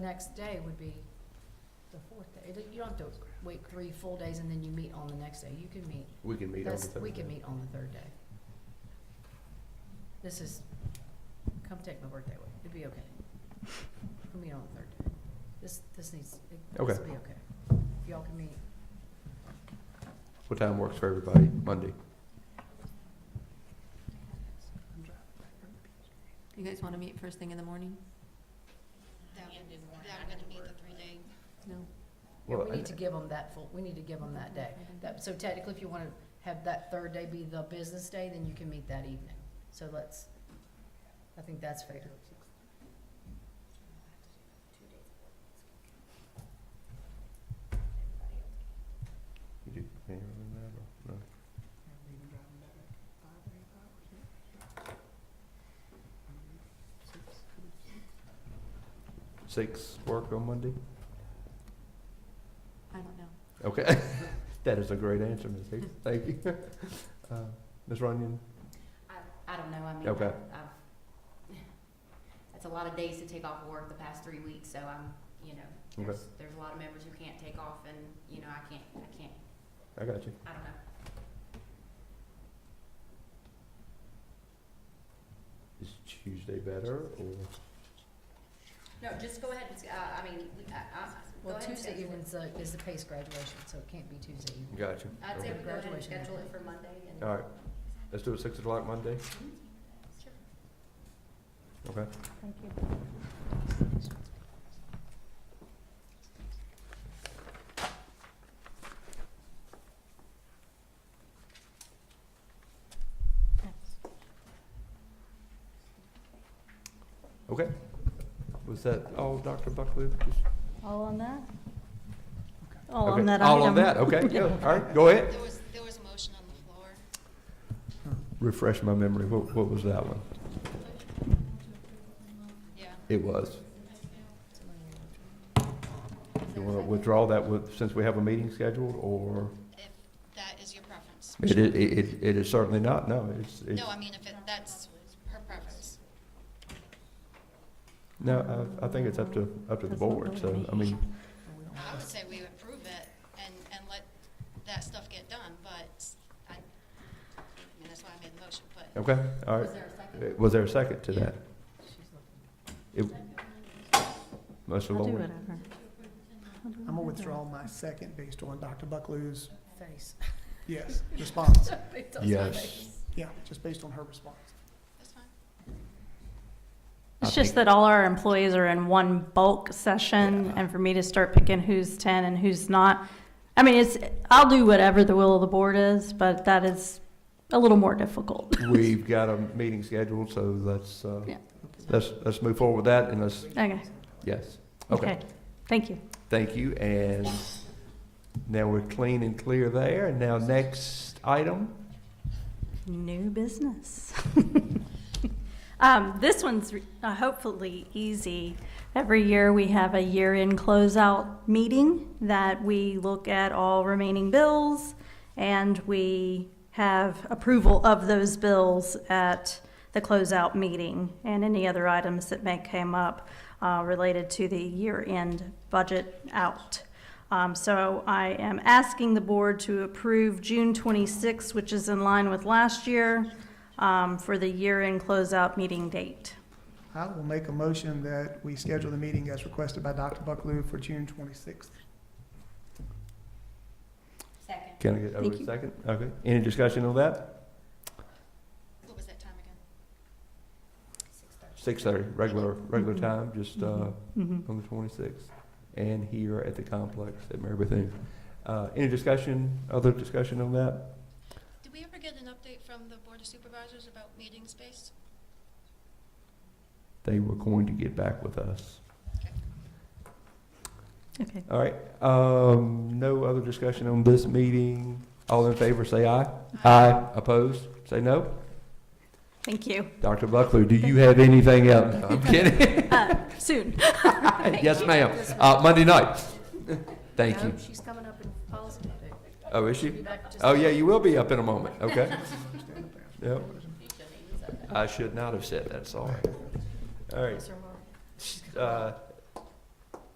Next day would be the fourth day. It- You don't have to wait three full days and then you meet on the next day. You can meet, We can meet on the that's, third. we can meet on the third day. This is, come take my birthday away. It'd be okay. We'll meet on the third day. This, this needs, it needs Okay. to be okay. If y'all can meet, What time works for everybody? Monday? You guys want to meet first thing in the morning? That would, that would be the three-day. No? yeah, Well, we I- need to give them that full, we need to give them that day. That, so technically, if you wanna have that third day be the business day, then you can meet that evening. So let's, I think that's fair. You do annual and that, or no? Six work on Monday? I don't know. Okay. That is a great answer, Ms. Hicks. Thank you. Uh, Ms. Runyon? I don't know, I mean, Okay. I've, that's a lot of days to take off work the past three weeks, so I'm, you know, Okay. there's, there's a lot of members who can't take off and, you know, I can't, I can't, I got you. I don't know. Is Tuesday better or? No, just go ahead and, s- uh, I mean, I, I, go Well, ahead and Tuesday schedule it. evening's, uh, is the PACE graduation, so it can't be Tuesday evening. Got you. I'd say Okay. we go ahead and Graduation. schedule it for Monday and. All right. Let's do it six o'clock Monday. Sure. Okay. Okay. Was that all, Dr. Buckley? Just- All on that? All okay. on that item? All on that. Okay. Good. All right. Go ahead. There was, there was a motion on the floor. Refresh my memory. What, what was that one? Yeah. It was. You want to withdraw that with, since we have a meeting scheduled or? If that is your preference. It, it, it, it is certainly not. No, it's, it's, No, I mean, if it, that's her preference. no, I, I think it's up to, up to the That's not board. So, I voting. mean, I would say we approve it and, and let that stuff get done, but I, I mean, that's why I made the motion, but okay, all right. Was there a second? Uh, Was there a second to that? It- Mr. I'll do Lord, whatever. I'm gonna withdraw my second based on Dr. Buckley's, Face. yes, response. It does my Yes. face. Yeah, just based on her response. that's fine. I It's just think- that all our employees are in one bulk session, Yeah. and for me to start picking who's ten and who's not, I mean, it's, I'll do whatever the will of the board is, but that is a little more difficult. we've got a meeting scheduled, so let's, uh, Yeah. let's, let's move forward with that and let's, Okay, yes. Okay, okay, thank you. thank you. And now we're clean and clear there. And now next item, New business. um, this one's re- uh, hopefully easy. Every year we have a year end closeout meeting that we look at all remaining bills and we have approval of those bills at the closeout meeting and any other items that may come up uh, related to the year end budget out. Um, so I am asking the board to approve June 26, which is in line with last year, um, for the year-end closeout meeting date. I will make a motion that we schedule the meeting as requested by Dr. Buckley for June twenty-sixth. Second. can I get Thank over a you. second? Okay, any discussion on that? What was that time again? Six thirty, regular, regular Mhm. time, just, uh, Mhm. on the 26th, and here at the complex at Mary Bethune. Uh, Any discussion, other discussion on that? Did we ever get an update from the Board of Supervisors about meeting space? They were going to get back with us. Okay. All right, um, no other discussion on this meeting. All in favor, say aye. Opposed, say no. Thank you. Dr. Buckley, do you have anything else? No, I'm kidding. Uh, Soon. Yes, ma'am. Uh, Monday night. Thank No, you. She's coming up in policy update. Oh, is she? Be back just- Oh, yeah, you will be up in a moment, okay? Yep. I should not have said that, sorry. All right, Mr. Moore. uh,